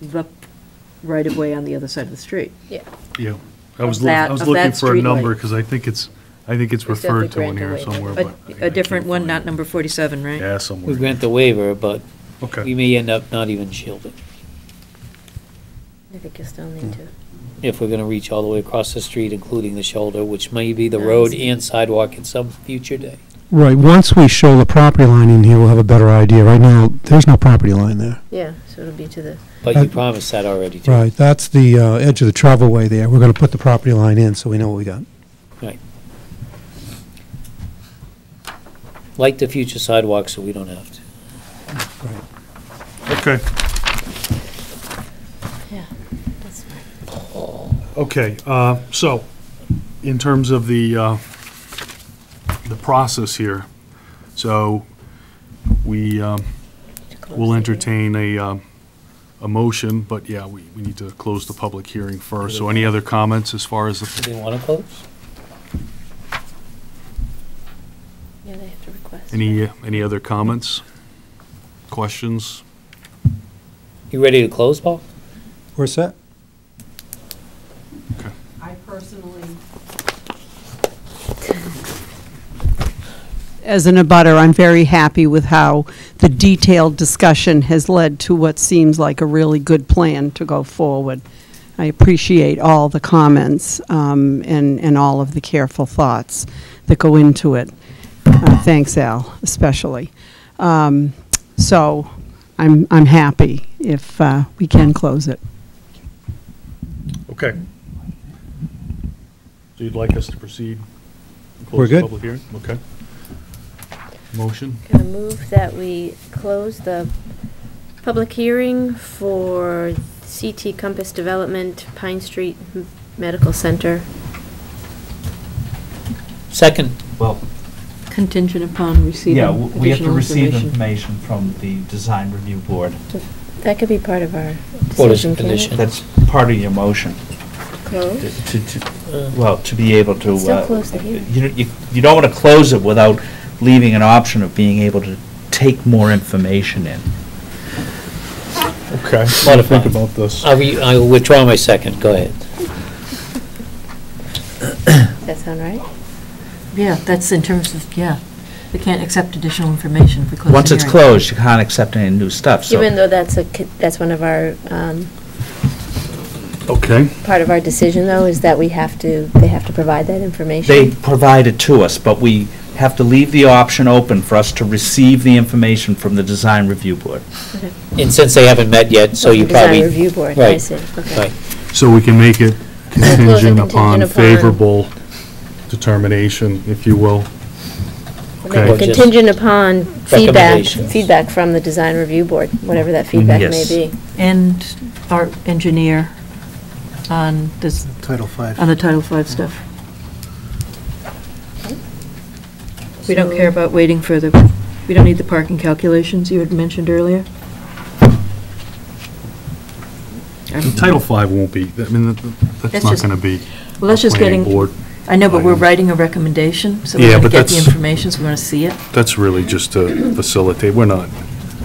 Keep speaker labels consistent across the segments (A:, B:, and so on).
A: the right-of-way on the other side of the street.
B: Yeah.
C: Yeah, I was,
A: Of
C: loo-
A: that-
C: I was
A: of
C: looking
A: that
C: for a
A: streetlight.
C: number, because I think it's, I think it's
B: It's definitely
C: referred to in here
B: granted
C: somewhere,
B: waiver.
A: A,
C: but. I- I
A: a different
C: can't
A: one,
C: find
A: not
C: it.
A: number 47, right?
C: Yeah,
D: We
C: somewhere.
D: grant the waiver, but we
C: Okay,
D: may end up not even shielding
B: I think you still need to.
D: if we're gonna reach all the way across the street, including the shoulder, which may be the
B: Nice.
D: road and sidewalk at some future day.
E: Right, once we show the property line in here, we'll have a better idea. Right now, there's no property line there.
B: Yeah, so it'll be to the,
D: But you
E: Uh,
D: promised that already, too.
E: Right, that's the uh, edge of the travelway there. We're going to put the property line in, so we know what we got.
D: Like the future sidewalk, so we don't have to.
E: Right.
C: okay,
B: yeah, that's fine.
C: okay. uh, So, in terms of the, uh, the process here, so we um,
B: To close
C: will
B: the-
C: entertain a, um, a motion, but yeah, we, we need to close the public hearing first. So any other comments as far as the
D: Do they wanna close?
B: Yeah, they have to request.
F: uh,
C: Any, any other comments, questions?
D: You ready to close, Paul?
E: We're set?
G: I personally. As an abutter, I'm very happy with how the detailed discussion has led to what seems like a really good plan to go forward. I appreciate all the comments um, and, and all of the careful thoughts that go into it. Uh, Thanks, Al, especially. Um, So I'm, I'm happy if uh, we can close it.
C: Okay. So you'd like us to proceed? and close
E: We're
C: the
E: good.
C: Public hearing, okay. Motion,
B: Gonna move that we close the public hearing for CT Compass Development, Pine Street M- Medical Center.
D: Second,
F: Well,
A: Contingent upon receiving
F: yeah, w- we have to
A: additional
F: receive
A: information.
F: information from the design review board.
B: That could be part of our
D: What is
B: decision,
D: the
B: can't it?
D: condition?
F: That's part of your motion,
B: Close?
F: to, to, well, to be able to.
B: Still
F: uh,
B: close the hearing.
F: You, you- you don't want to close it without leaving an option of being able to take more information in.
C: okay.
D: Lot of fun.
C: about this.
D: I re, I withdraw my second, go ahead.
B: That sound right?
H: Yeah, that's in terms of, yeah, we can't accept additional information if we close the
F: Once it's
H: hearing.
F: closed, you can't accept any new stuff, so.
B: Even though that's a, co- that's one of our, um,
C: Okay,
B: part of our decision, though, is that we have to, they have to provide that information?
F: They provide it to us, but we have to leave the option open for us to receive the information from the design review board.
D: And since they haven't met yet, so
B: Oh,
D: you
B: the design
D: probably.
B: review board, I
D: Right,
B: see, okay.
D: Right,
C: so we can make it
B: it
C: contingent
B: contingent
C: upon
B: upon-
C: favorable determination, if you will.
B: And then
D: Okay.
B: Contingent upon feedback,
D: Recommendations.
B: feedback from the design review board, whatever that feedback may
F: Yes.
B: be.
H: And our engineer on this,
E: Title five.
H: on the Title V stuff. We don't care about waiting for the, we don't need the parking calculations you had mentioned earlier?
C: Title V won't be, I mean, that- that's
H: That's
C: not
H: just-
C: going to be
H: Well, that's just
C: planning
H: getting,
C: board.
H: I know, but we're
C: item.
H: writing a recommendation, so
C: Yeah,
H: we're going to
C: but
H: get the
C: that's-
H: information, so we want to see it.
C: That's really just to facilitate, we're not,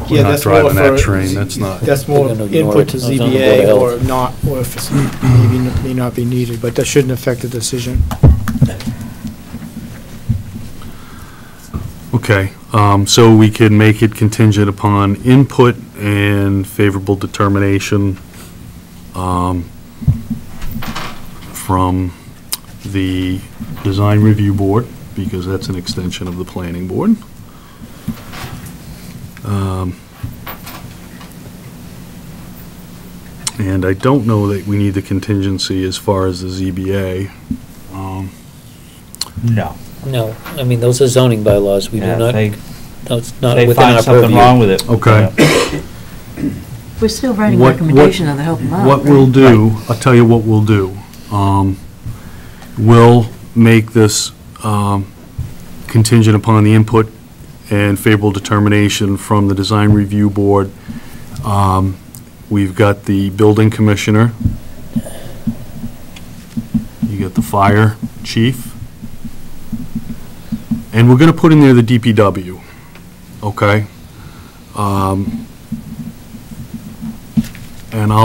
C: we're
I: Yeah,
C: not
I: that's more
C: driving that
I: for-
C: train, that's not.
I: That's more
D: They're gonna ignore
I: input to
D: it. It's on the Board of
I: ZBA or
D: Health.
I: not, or if it's maybe n- may not be needed, but that shouldn't affect the decision.
C: Okay, um, so we can make it contingent upon input and favorable determination um, from the design review board, because that's an extension of the planning board. Um, And I don't know that we need the contingency as far as the ZBA. Um,
F: No.
D: no, I mean, those are zoning bylaws, we do
F: Yeah,
D: not,
F: they-
D: that's not
F: They
D: within
F: find
D: our purview.
F: something wrong with it.
C: Okay.
H: We're still writing
C: What- what-
H: recommendation though, to help them out.
C: What
H: right?
C: we'll do, I'll tell you what we'll do. Um, We'll make this um, contingent upon the input and favorable determination from the design review board. Um, We've got the building commissioner. You got the fire chief. And we're gonna put in there the DPW, okay? Um, And I'll